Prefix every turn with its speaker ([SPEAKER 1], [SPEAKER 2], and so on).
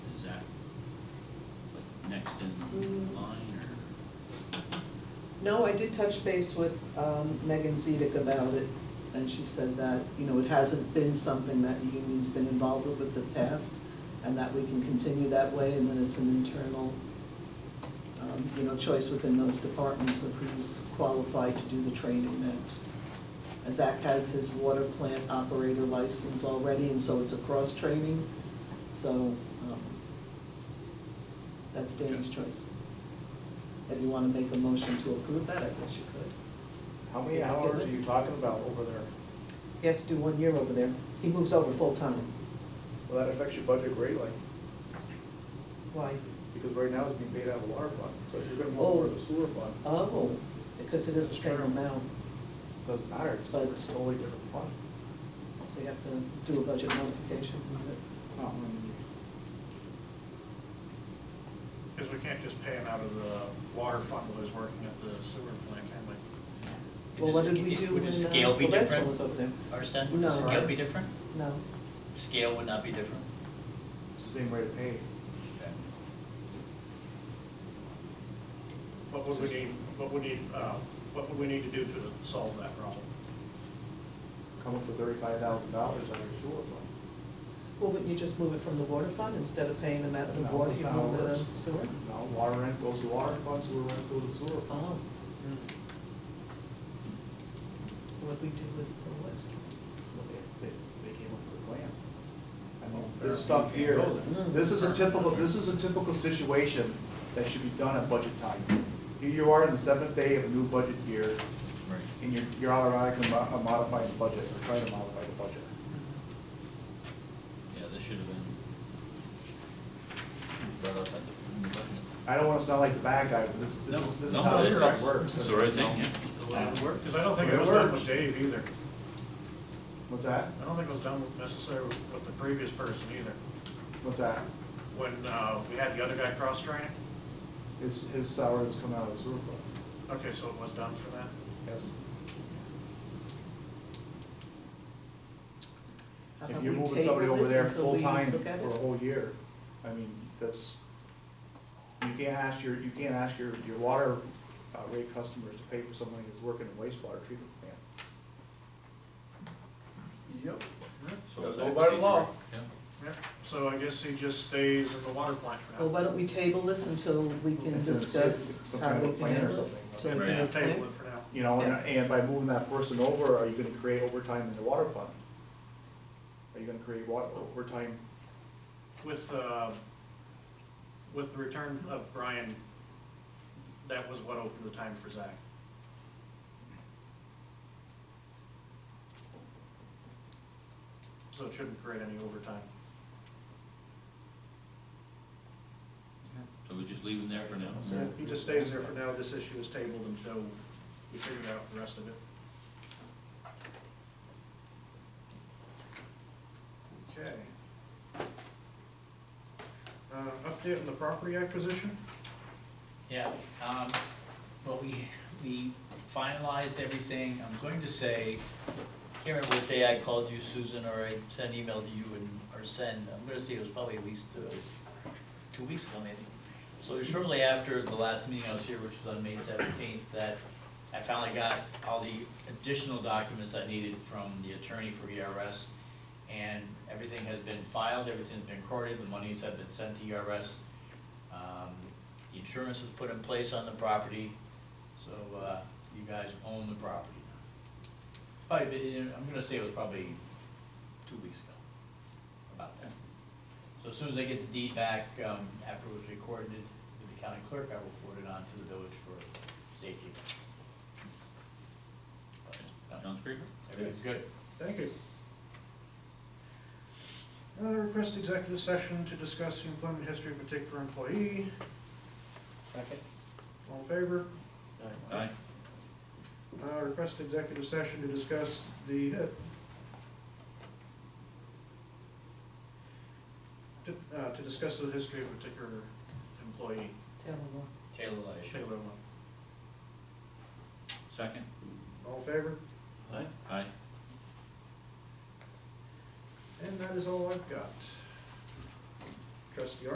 [SPEAKER 1] next in line,
[SPEAKER 2] No, I did touch base with um, Megan Zedek about it, and she said that, you know, it hasn't been something that the union's been involved with in the past, and that we can continue that way, and then it's an internal, um, you know, choice within those departments of who's qualified to do the training next. And Zach has his water plant operator license already, and so it's a cross-training, so um, that's Danny's choice. If you want to make a motion to approve that, I guess you could.
[SPEAKER 3] How many hours are you talking about over there?
[SPEAKER 2] He has to do one year over there. He moves over full-time.
[SPEAKER 3] Well, that affects your budget greatly,
[SPEAKER 2] Why?
[SPEAKER 3] because right now it's being paid out of the water fund, so if you're gonna move over to the sewer fund,
[SPEAKER 2] Oh, because it is the same amount,
[SPEAKER 3] it doesn't matter, it's
[SPEAKER 2] But-
[SPEAKER 3] it's a totally different fund.
[SPEAKER 2] so you have to do a budget modification with it.
[SPEAKER 3] Not when you-
[SPEAKER 4] Because we can't just pay him out of the water fund while he's working at the sewer plant, can we?
[SPEAKER 1] or?
[SPEAKER 2] Well, what did we do when
[SPEAKER 1] Would
[SPEAKER 2] uh,
[SPEAKER 1] the scale be
[SPEAKER 2] the last one
[SPEAKER 1] different,
[SPEAKER 2] was over there?
[SPEAKER 1] Arsen? Would
[SPEAKER 2] No.
[SPEAKER 1] the scale be different?
[SPEAKER 2] No,
[SPEAKER 1] Scale would not be different?
[SPEAKER 3] It's the same rate of pay.
[SPEAKER 1] Okay.
[SPEAKER 4] What would we need, what would need, uh, what would we need to do to solve that problem?
[SPEAKER 3] Come up with thirty-five thousand dollars on your sewer fund.
[SPEAKER 2] well, wouldn't you just move it from the water fund, instead of paying them out of the
[SPEAKER 3] No,
[SPEAKER 2] water,
[SPEAKER 3] that's
[SPEAKER 2] you
[SPEAKER 3] not how
[SPEAKER 2] move
[SPEAKER 3] it
[SPEAKER 2] it out of
[SPEAKER 3] works.
[SPEAKER 2] sewer?
[SPEAKER 3] No, water rent goes to water fund, sewer rent goes to sewer fund.
[SPEAKER 2] Oh. What we do with the last
[SPEAKER 3] Well, They, they, they came up with a plan. I mean, this stuff here,
[SPEAKER 2] Mm.
[SPEAKER 3] this is a typical, this is a typical situation that should be done at budget time. Here you are in the seventh day of a new budget year,
[SPEAKER 1] Right.
[SPEAKER 3] and you're, you're automatically mo- uh, modifying the budget, or trying to modify the budget.
[SPEAKER 1] Yeah, this should have been brought up at the, in the budget.
[SPEAKER 3] I don't wanna sound like the bad guy, but this, this is, this is
[SPEAKER 1] No,
[SPEAKER 3] how
[SPEAKER 1] it
[SPEAKER 3] this
[SPEAKER 1] is.
[SPEAKER 3] stuff works.
[SPEAKER 1] It's the right thing, yeah.
[SPEAKER 4] The way it worked, because I don't think it
[SPEAKER 3] It
[SPEAKER 4] was done
[SPEAKER 3] worked.
[SPEAKER 4] with Dave either.
[SPEAKER 3] What's that?
[SPEAKER 4] I don't think it was done with- necessarily with the previous person either.
[SPEAKER 3] What's that?
[SPEAKER 4] When uh, we had the other guy cross-training?
[SPEAKER 3] His, his salary was coming out of the sewer fund.
[SPEAKER 4] Okay, so it was done for that?
[SPEAKER 3] Yes.
[SPEAKER 2] How
[SPEAKER 3] If
[SPEAKER 2] about
[SPEAKER 3] you're
[SPEAKER 2] we
[SPEAKER 3] moving somebody
[SPEAKER 2] table
[SPEAKER 3] over
[SPEAKER 2] this
[SPEAKER 3] there
[SPEAKER 2] until we
[SPEAKER 3] full-time
[SPEAKER 2] look at
[SPEAKER 3] for a
[SPEAKER 2] it?
[SPEAKER 3] whole year, I mean, that's, you can't ask your, you can't ask your, your water uh, rate customers to pay for somebody who's working in wastewater treatment plant.
[SPEAKER 4] Yep.
[SPEAKER 1] So
[SPEAKER 3] Gotta
[SPEAKER 1] it's
[SPEAKER 3] go
[SPEAKER 1] like
[SPEAKER 3] by the
[SPEAKER 1] state
[SPEAKER 3] law.
[SPEAKER 1] rate, Yeah.
[SPEAKER 4] So I guess he just stays in the water plant for
[SPEAKER 2] Well,
[SPEAKER 4] now.
[SPEAKER 2] why don't we table this until we can
[SPEAKER 3] If there's
[SPEAKER 2] discuss
[SPEAKER 3] some
[SPEAKER 2] how
[SPEAKER 3] kind of
[SPEAKER 2] we
[SPEAKER 3] a
[SPEAKER 2] can
[SPEAKER 3] plan or
[SPEAKER 2] handle it?
[SPEAKER 3] something, right?
[SPEAKER 2] till we
[SPEAKER 4] We're
[SPEAKER 2] can
[SPEAKER 4] gonna
[SPEAKER 2] plan?
[SPEAKER 4] table it for now.
[SPEAKER 3] You know, and,
[SPEAKER 2] Yeah.
[SPEAKER 3] and by moving that person over, are you gonna create overtime in the water fund? Are you gonna create wa- overtime?
[SPEAKER 4] With, uh, with the return of Brian, that was what opened the time for Zach. So it shouldn't create any overtime.
[SPEAKER 1] So we just leave him there for now?
[SPEAKER 4] So if he just stays there for now, this issue is tabled until we figure out the rest of it. Okay. Uh, update on the property acquisition?
[SPEAKER 5] Yeah, um, well, we, we finalized everything, I'm going to say, can't remember what day I called you, Susan, or I sent an email to you and, or send, I'm gonna say it was probably at least, uh, two weeks ago maybe. So shortly after the last meeting I was here, which was on May seventeenth, that I finally got all the additional documents I needed from the attorney for ERS. And everything has been filed, everything's been recorded, the monies have been sent to E ERS. Um, the Insurance was put in place on the property, so uh, you guys own the property now. Probably, been- I'm gonna say it was probably two weeks ago, about that. So as soon as I get the deed back, um, after it was recorded with the county clerk, I will forward it on to the village for safekeeping. But, no,
[SPEAKER 1] Sounds great.
[SPEAKER 5] Everything's good.
[SPEAKER 4] Thank you. Uh, request executive session to discuss the employment history of a particular employee.
[SPEAKER 5] Second?
[SPEAKER 4] All in favor?
[SPEAKER 1] Aye.
[SPEAKER 4] Uh, request executive session to discuss the, uh, to, uh, to discuss the history of a particular employee,
[SPEAKER 2] Tell them what.
[SPEAKER 5] Taylor Lash.
[SPEAKER 4] Shayla.
[SPEAKER 1] Second?
[SPEAKER 4] All in favor?
[SPEAKER 1] Aye. Aye.
[SPEAKER 4] And that is all I've got. Trustee